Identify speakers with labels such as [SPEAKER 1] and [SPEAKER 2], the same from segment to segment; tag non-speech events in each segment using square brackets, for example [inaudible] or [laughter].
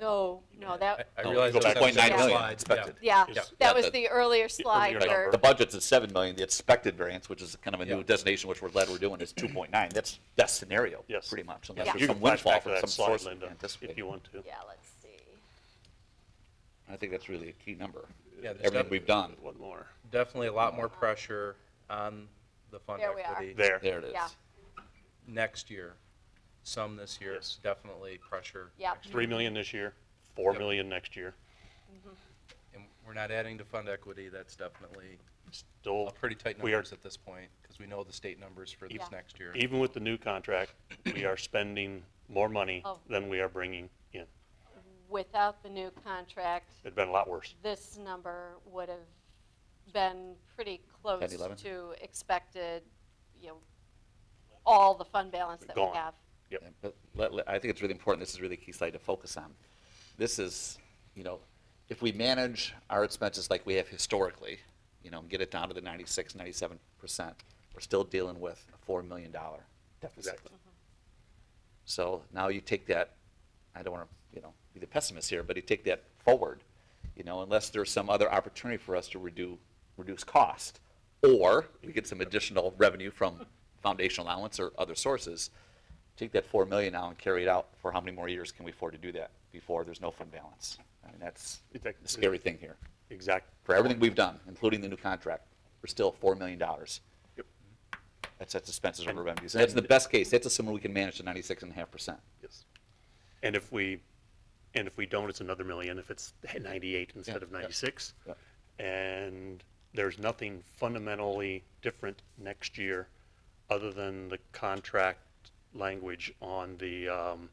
[SPEAKER 1] No, no, that,
[SPEAKER 2] I
[SPEAKER 3] No,
[SPEAKER 4] Oh,
[SPEAKER 2] realize
[SPEAKER 3] go
[SPEAKER 2] that's
[SPEAKER 3] 2.9
[SPEAKER 2] separate
[SPEAKER 3] million
[SPEAKER 2] slides,
[SPEAKER 3] expected.
[SPEAKER 2] yeah.
[SPEAKER 1] yeah,
[SPEAKER 2] Yeah.
[SPEAKER 1] that
[SPEAKER 3] Yeah,
[SPEAKER 1] was
[SPEAKER 3] the-
[SPEAKER 1] the earlier slide
[SPEAKER 3] Right.
[SPEAKER 1] where,
[SPEAKER 3] The budget's at seven million, the expected variance, which is kind of a
[SPEAKER 2] Yeah.
[SPEAKER 3] new designation, which we're glad we're doing, is two point nine. That's best scenario,
[SPEAKER 4] Yes.
[SPEAKER 3] pretty much,
[SPEAKER 1] Yeah.
[SPEAKER 3] unless
[SPEAKER 4] You
[SPEAKER 3] there's
[SPEAKER 4] can
[SPEAKER 3] some
[SPEAKER 4] flash
[SPEAKER 3] windfall
[SPEAKER 4] back to
[SPEAKER 3] from
[SPEAKER 4] that
[SPEAKER 3] some
[SPEAKER 4] slide,
[SPEAKER 3] source.
[SPEAKER 4] Linda, if you
[SPEAKER 3] anticipated.
[SPEAKER 4] want to.
[SPEAKER 1] yeah, let's see.
[SPEAKER 3] I think that's really a key number,
[SPEAKER 2] Yeah, there's
[SPEAKER 3] everything
[SPEAKER 2] def-
[SPEAKER 3] we've done.
[SPEAKER 4] One more.
[SPEAKER 2] Definitely a lot more pressure on the fund
[SPEAKER 1] There we are.
[SPEAKER 2] equity
[SPEAKER 4] There.
[SPEAKER 3] There it is.
[SPEAKER 1] Yeah.
[SPEAKER 2] next year, some this year,
[SPEAKER 4] Yes.
[SPEAKER 2] definitely pressure.
[SPEAKER 1] Yep.
[SPEAKER 2] next year.
[SPEAKER 4] Three million this year, four
[SPEAKER 2] Yep.
[SPEAKER 4] million next year.
[SPEAKER 2] And we're not adding to fund equity, that's definitely a
[SPEAKER 4] Still,
[SPEAKER 2] pretty tight
[SPEAKER 4] we are, E-
[SPEAKER 2] numbers at this point, because we know the state numbers for this
[SPEAKER 1] Yeah.
[SPEAKER 2] next year.
[SPEAKER 4] even with the new contract, we are spending more money
[SPEAKER 1] Oh.
[SPEAKER 4] than we are bringing in.
[SPEAKER 1] Without the new contract,
[SPEAKER 4] It'd been a lot worse.
[SPEAKER 1] this number would have been pretty close
[SPEAKER 3] 10, 11?
[SPEAKER 1] to expected, you know, all the fund balance that we
[SPEAKER 4] Gone.
[SPEAKER 1] have.
[SPEAKER 4] Yep.
[SPEAKER 3] Yeah, But let- let- I think it's really important, this is really a key slide to focus on. This is, you know, if we manage our expenses like we have historically, you know, and get it down to the 96, 97%, we're still dealing with a $4 million deficit.
[SPEAKER 4] Exactly.
[SPEAKER 3] So now you take that, I don't want to, you know, be the pessimist here, but you take that forward, you know, unless there's some other opportunity for us to reduce, reduce cost, or we get some additional revenue from foundation allowance or other sources, take that four million now and carry it out for how many more years can we afford to do that before there's no fund balance? I mean, that's
[SPEAKER 4] Exactly.
[SPEAKER 3] the scary thing here.
[SPEAKER 4] Exact.
[SPEAKER 3] For everything we've done, including the new contract, we're still four million dollars.
[SPEAKER 4] Yep.
[SPEAKER 3] That's, that's expenses over revenues. And that's the best case. That's assuming we can manage the ninety-six and a half percent.
[SPEAKER 4] Yes. And if we, and if we don't, it's another million, if it's ninety-eight instead
[SPEAKER 3] Yeah,
[SPEAKER 4] of ninety-six.
[SPEAKER 3] yeah.
[SPEAKER 4] And there's nothing fundamentally different next year, other than the contract language on the, um,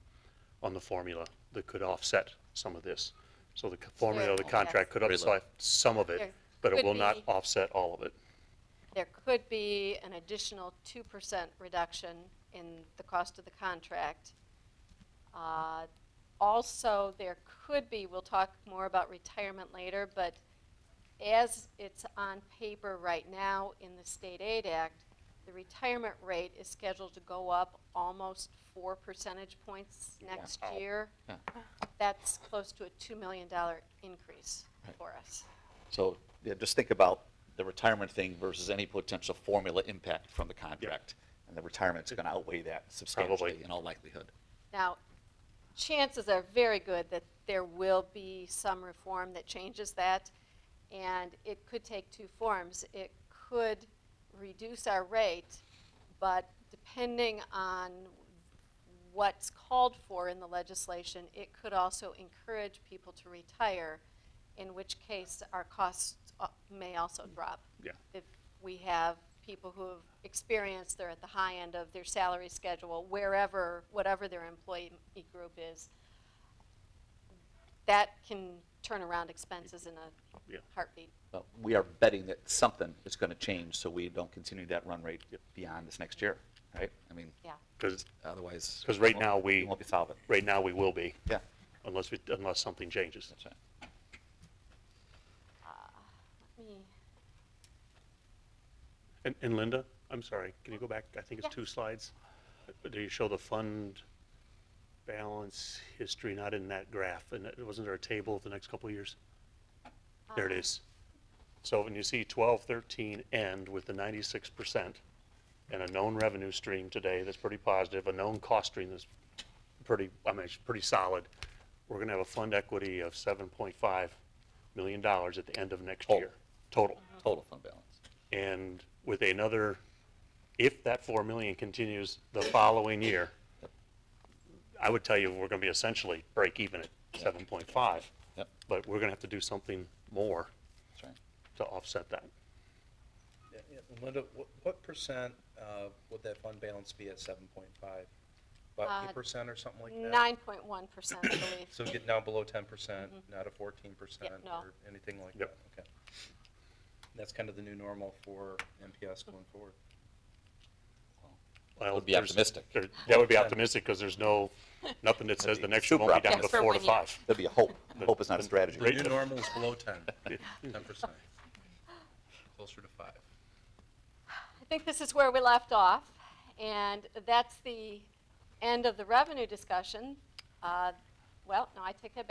[SPEAKER 4] on the formula that could offset some of this. So the c- formula, of the
[SPEAKER 1] Sure,
[SPEAKER 4] contract
[SPEAKER 1] yes.
[SPEAKER 4] could
[SPEAKER 3] Very low.
[SPEAKER 4] offset some of
[SPEAKER 1] There
[SPEAKER 4] it, but it
[SPEAKER 1] could
[SPEAKER 4] will not
[SPEAKER 1] be-
[SPEAKER 4] offset all of it.
[SPEAKER 1] There could be an additional two percent reduction in the cost of the contract. Uh, Also, there could be, we'll talk more about retirement later, but as it's on paper right now in the State Aid Act, the retirement rate is scheduled to go up almost four percentage points next
[SPEAKER 4] Wow.
[SPEAKER 1] year.
[SPEAKER 3] Yeah.
[SPEAKER 1] That's close to a two million dollar increase for us.
[SPEAKER 3] So, yeah, just think about the retirement thing versus any potential formula impact from the contract. And the retirement's gonna outweigh that substantially
[SPEAKER 4] Probably.
[SPEAKER 3] in all likelihood.
[SPEAKER 1] Now, chances are very good that there will be some reform that changes that, and it could take two forms. It could reduce our rate, but depending on what's called for in the legislation, it could also encourage people to retire, in which case our costs uh, may also drop.
[SPEAKER 4] Yeah.
[SPEAKER 1] If we have people who have experienced, they're at the high end of their salary schedule, wherever, whatever their employee group is, that can turn around expenses in a
[SPEAKER 4] Yeah.
[SPEAKER 1] heartbeat.
[SPEAKER 3] But we are betting that something is gonna change, so we don't continue that run rate
[SPEAKER 4] Yep.
[SPEAKER 3] beyond this next year, right? I mean,
[SPEAKER 1] Yeah,
[SPEAKER 4] Because,
[SPEAKER 3] otherwise.
[SPEAKER 4] because
[SPEAKER 3] we
[SPEAKER 4] right
[SPEAKER 3] won't-
[SPEAKER 4] now, we,
[SPEAKER 3] won't be solvent.
[SPEAKER 4] right now, we will be,
[SPEAKER 3] Yeah,
[SPEAKER 4] unless, we unless something changes.
[SPEAKER 3] that's right.
[SPEAKER 1] let me,
[SPEAKER 4] And, and Linda, I'm sorry, can you go back? I think it's
[SPEAKER 1] Yeah.
[SPEAKER 4] two slides. Uh, Do you show the fund balance history, not in that graph? And it- wasn't there a table of the next couple of years? There it is. So when you see 12, 13 end with the 96% and a known revenue stream today that's pretty positive, a known cost stream that's pretty, I mean, it's pretty solid, we're going to have a fund equity of $7.5 million at the end of next
[SPEAKER 3] Total.
[SPEAKER 4] year. Total.
[SPEAKER 3] Total fund balance.
[SPEAKER 4] And with another, if that four million continues the following year, I would tell you, we're gonna be essentially break even at seven point five.
[SPEAKER 3] Yep,
[SPEAKER 4] But we're gonna have to do something more
[SPEAKER 3] that's right.
[SPEAKER 4] to offset that.
[SPEAKER 2] Yeah, yeah. And Linda, what, what percent, uh, would that fund balance be at seven point five? About
[SPEAKER 1] Uh,
[SPEAKER 2] eight percent or something like that?
[SPEAKER 1] nine point one percent, I believe.
[SPEAKER 2] [coughs] So getting down below ten percent, not a fourteen percent
[SPEAKER 1] Mm-hmm. Yeah, no.
[SPEAKER 2] or anything like that,
[SPEAKER 4] Yep.
[SPEAKER 2] okay. That's kind of the new normal for MPS going forward.
[SPEAKER 4] Well,
[SPEAKER 3] Would be
[SPEAKER 4] there's-
[SPEAKER 3] optimistic.
[SPEAKER 4] there- That would be optimistic, because there's no, nothing that says the next year won't be down to
[SPEAKER 3] Super
[SPEAKER 4] four to
[SPEAKER 1] optimistic.
[SPEAKER 4] five.
[SPEAKER 3] That'd be a hope. Hope is not a strategy.
[SPEAKER 2] The new normal is below ten,
[SPEAKER 3] [laughs]
[SPEAKER 2] ten percent. Closer to five.
[SPEAKER 1] I think this is where we left off, and that's the end of the revenue discussion. Uh, Well, no, I take that back.